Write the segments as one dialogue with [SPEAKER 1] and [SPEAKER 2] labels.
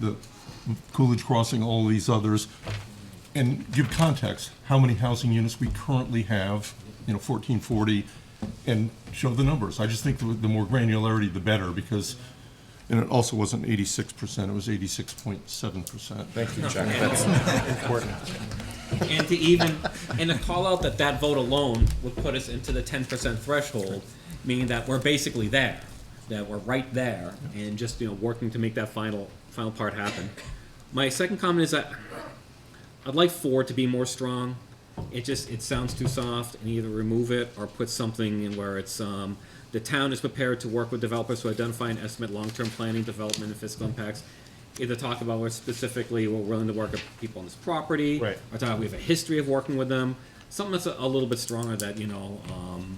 [SPEAKER 1] the Coolidge Crossing, all these others, and give context, how many housing units we currently have, you know, 1440, and show the numbers. I just think the the more granularity, the better, because, and it also wasn't 86%, it was 86.7%.
[SPEAKER 2] Thank you, Chuck. That's important.
[SPEAKER 3] and to even and to call out that that vote alone would put us into the 10% threshold meaning that we're basically there that we're right there and just you know working to make that final final part happen my second comment is that i'd like four to be more strong it just it sounds too soft and either remove it or put something in where it's um, the town is prepared to work with developers to identify and estimate long-term planning development and fiscal impacts either talk about where specifically we're willing to work with people on this property
[SPEAKER 2] Right.
[SPEAKER 3] or talk we have a history of working with them something that's a, a little bit stronger that you know um,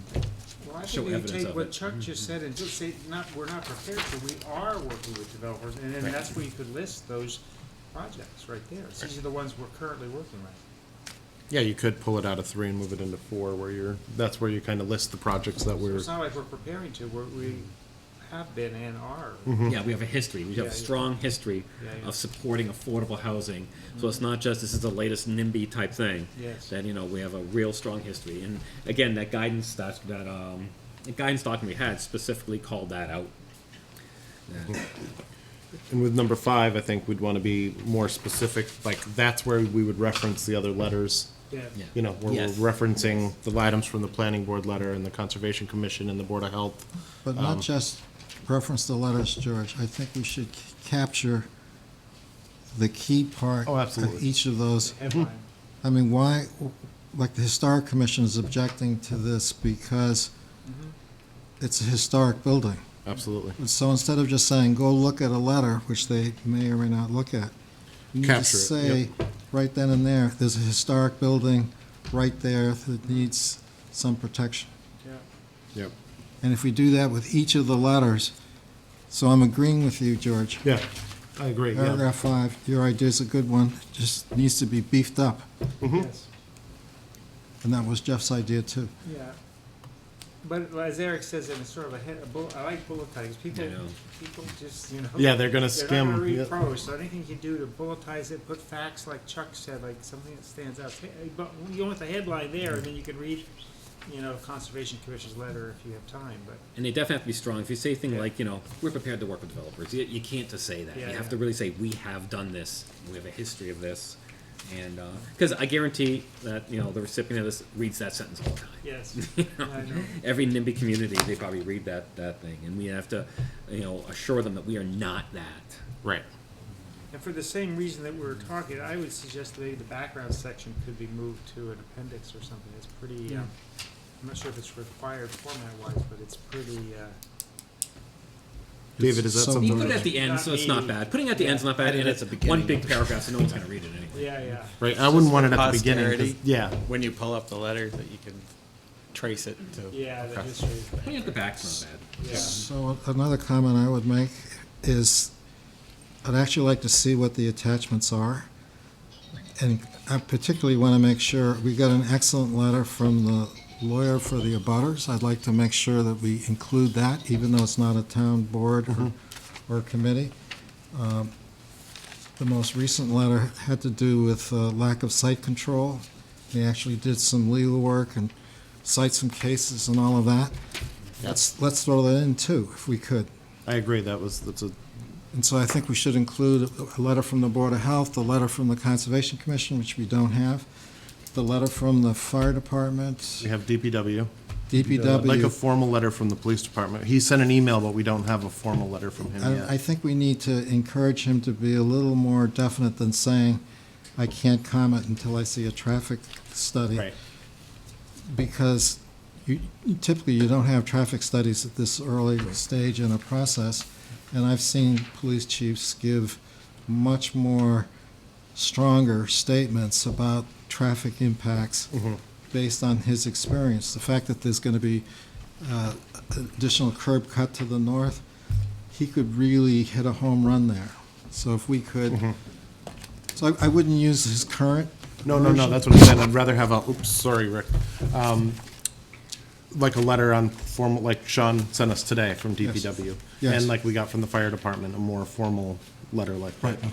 [SPEAKER 4] Well, I
[SPEAKER 3] show
[SPEAKER 4] think we
[SPEAKER 3] evidence
[SPEAKER 4] take
[SPEAKER 3] of
[SPEAKER 4] what
[SPEAKER 3] it. Mm-hmm.
[SPEAKER 4] Chuck just said and just say, not, we're not prepared, but we are working with developers, and then that's where you could list those projects right there. These are the ones we're currently working on.
[SPEAKER 2] Yeah, you could pull it out of three and move it into four, where you're, that's where you kind of list the projects that we're,
[SPEAKER 4] It's not like we're preparing to, we're, we
[SPEAKER 3] Mm-hmm.
[SPEAKER 4] have been and are.
[SPEAKER 3] Yeah, we have a history. We have
[SPEAKER 4] Mm-hmm. Yeah,
[SPEAKER 3] a
[SPEAKER 4] yeah.
[SPEAKER 3] strong history
[SPEAKER 4] Yeah, yeah. Mm-hmm.
[SPEAKER 3] of supporting affordable housing. So it's not just this is the latest NIMBY type thing.
[SPEAKER 4] Yes.
[SPEAKER 3] That you know we have a real strong history, and again that guidance that that um, the guidance document we had specifically called that out.
[SPEAKER 2] and with number five, I think we'd want to be more specific, like, that's where we would reference the other letters.
[SPEAKER 4] Yeah.
[SPEAKER 3] Yeah.
[SPEAKER 2] You know, where
[SPEAKER 3] Yes.
[SPEAKER 2] we're referencing the items from the planning board letter and the conservation commission and the board of health.
[SPEAKER 5] But
[SPEAKER 2] Um,
[SPEAKER 5] not just reference the letters, George. I think we should c- capture the key part
[SPEAKER 2] Oh, absolutely.
[SPEAKER 5] of each of those.
[SPEAKER 4] Headline.
[SPEAKER 5] I mean, why, like, the Historic Commission is objecting to this because
[SPEAKER 2] Mm-hmm.
[SPEAKER 5] it's a historic building.
[SPEAKER 2] Absolutely.
[SPEAKER 5] So instead of just saying, go look at a letter, which they may or may not look at, you need to
[SPEAKER 2] Capture it,
[SPEAKER 5] say, right then and there, there's a historic building right there that needs some protection.
[SPEAKER 3] Mm-hmm.
[SPEAKER 4] Yeah.
[SPEAKER 2] Yep.
[SPEAKER 5] And if we do that with each of the letters, so I'm agreeing with you, George.
[SPEAKER 2] Yeah, I agree, yeah.
[SPEAKER 5] Paragraph five, your idea's a good one, just needs to be beefed up.
[SPEAKER 3] Mm-hmm.
[SPEAKER 4] Yes.
[SPEAKER 5] And that was Jeff's idea, too.
[SPEAKER 4] Yeah. But as Eric says, it's sort of a head, a bullet, I like bulletize, people,
[SPEAKER 3] I know.
[SPEAKER 4] people just, you know.
[SPEAKER 2] Yeah, they're gonna
[SPEAKER 4] They're not
[SPEAKER 2] skim,
[SPEAKER 4] gonna
[SPEAKER 2] yeah.
[SPEAKER 4] read prose, so anything you do to bulletize it, put facts like Chuck said, like something that stands out. Hey, But you want the headline there, and then you can read, you know, Conservation Commission's letter if you have time, but.
[SPEAKER 3] And they definitely have to be strong. If you say thing like you know we're prepared to work with developers, you, you can't just say that.
[SPEAKER 4] Yeah,
[SPEAKER 3] you have
[SPEAKER 4] yeah.
[SPEAKER 3] to really say we have done this. We have a history of this, and because I guarantee that you know the recipient of this reads that sentence all the time.
[SPEAKER 4] Yes, I know.
[SPEAKER 3] every NIMBY community, they probably read that, that thing, and we have to, you know, assure them that we are not that.
[SPEAKER 2] Right.
[SPEAKER 4] And for the same reason that we were talking, I would suggest maybe the background section could be moved to an appendix or something. It's pretty, um, I'm not sure if it's required format-wise, but it's pretty, uh,
[SPEAKER 2] David, is that
[SPEAKER 5] So-
[SPEAKER 3] You
[SPEAKER 2] something?
[SPEAKER 3] put it
[SPEAKER 2] that-
[SPEAKER 3] at the end, so it's not bad. Putting it at the end's not bad, and it's one big paragraph, so no one's gonna read it anyway.
[SPEAKER 4] yeah, yeah.
[SPEAKER 2] Right, I wouldn't want it at the beginning, 'cause-
[SPEAKER 6] Posterity.
[SPEAKER 2] yeah,
[SPEAKER 6] When you pull up the letter, that you can trace it to.
[SPEAKER 4] Yeah, the history,
[SPEAKER 3] Putting it at the back's not bad.
[SPEAKER 4] yeah.
[SPEAKER 5] So another comment I would make is, I'd actually like to see what the attachments are. And I particularly want to make sure, we got an excellent letter from the lawyer for the abutters. I'd like to make sure that we include that, even though it's not a town board or, or committee. Um, The most recent letter had to do with uh, lack of site control. They actually did some legal work and cite some cases and all of that. Let's, let's throw that in too, if we could.
[SPEAKER 2] I agree, that was, that's a,
[SPEAKER 5] And so I think we should include a letter from the Board of Health, the letter from the Conservation Commission, which we don't have, the letter from the Fire Department,
[SPEAKER 2] we have DPW. Uh, Like a
[SPEAKER 5] DPW.
[SPEAKER 2] formal letter from the police department. He sent an email, but we don't have a formal letter from him
[SPEAKER 5] I, I
[SPEAKER 2] yet.
[SPEAKER 5] think we need to encourage him to be a little more definite than saying, I can't comment until I see a traffic study.
[SPEAKER 2] Right,
[SPEAKER 5] because you, typically you don't have traffic studies at this early stage in a process. And I've seen police chiefs give much more stronger statements about traffic impacts based on his experience. The fact that there's going to be uh, additional curb cut to the north, he could really hit a home run there. So if we could, so I- I wouldn't use his current.
[SPEAKER 2] no, no, no,
[SPEAKER 5] version.
[SPEAKER 2] that's what I'm saying, I'd rather have a, oops, sorry, Rick. Um, Like a letter on formal, like Sean sent us today from DPW.
[SPEAKER 5] Yes.
[SPEAKER 2] And like we got from the fire department, a more formal letter like that.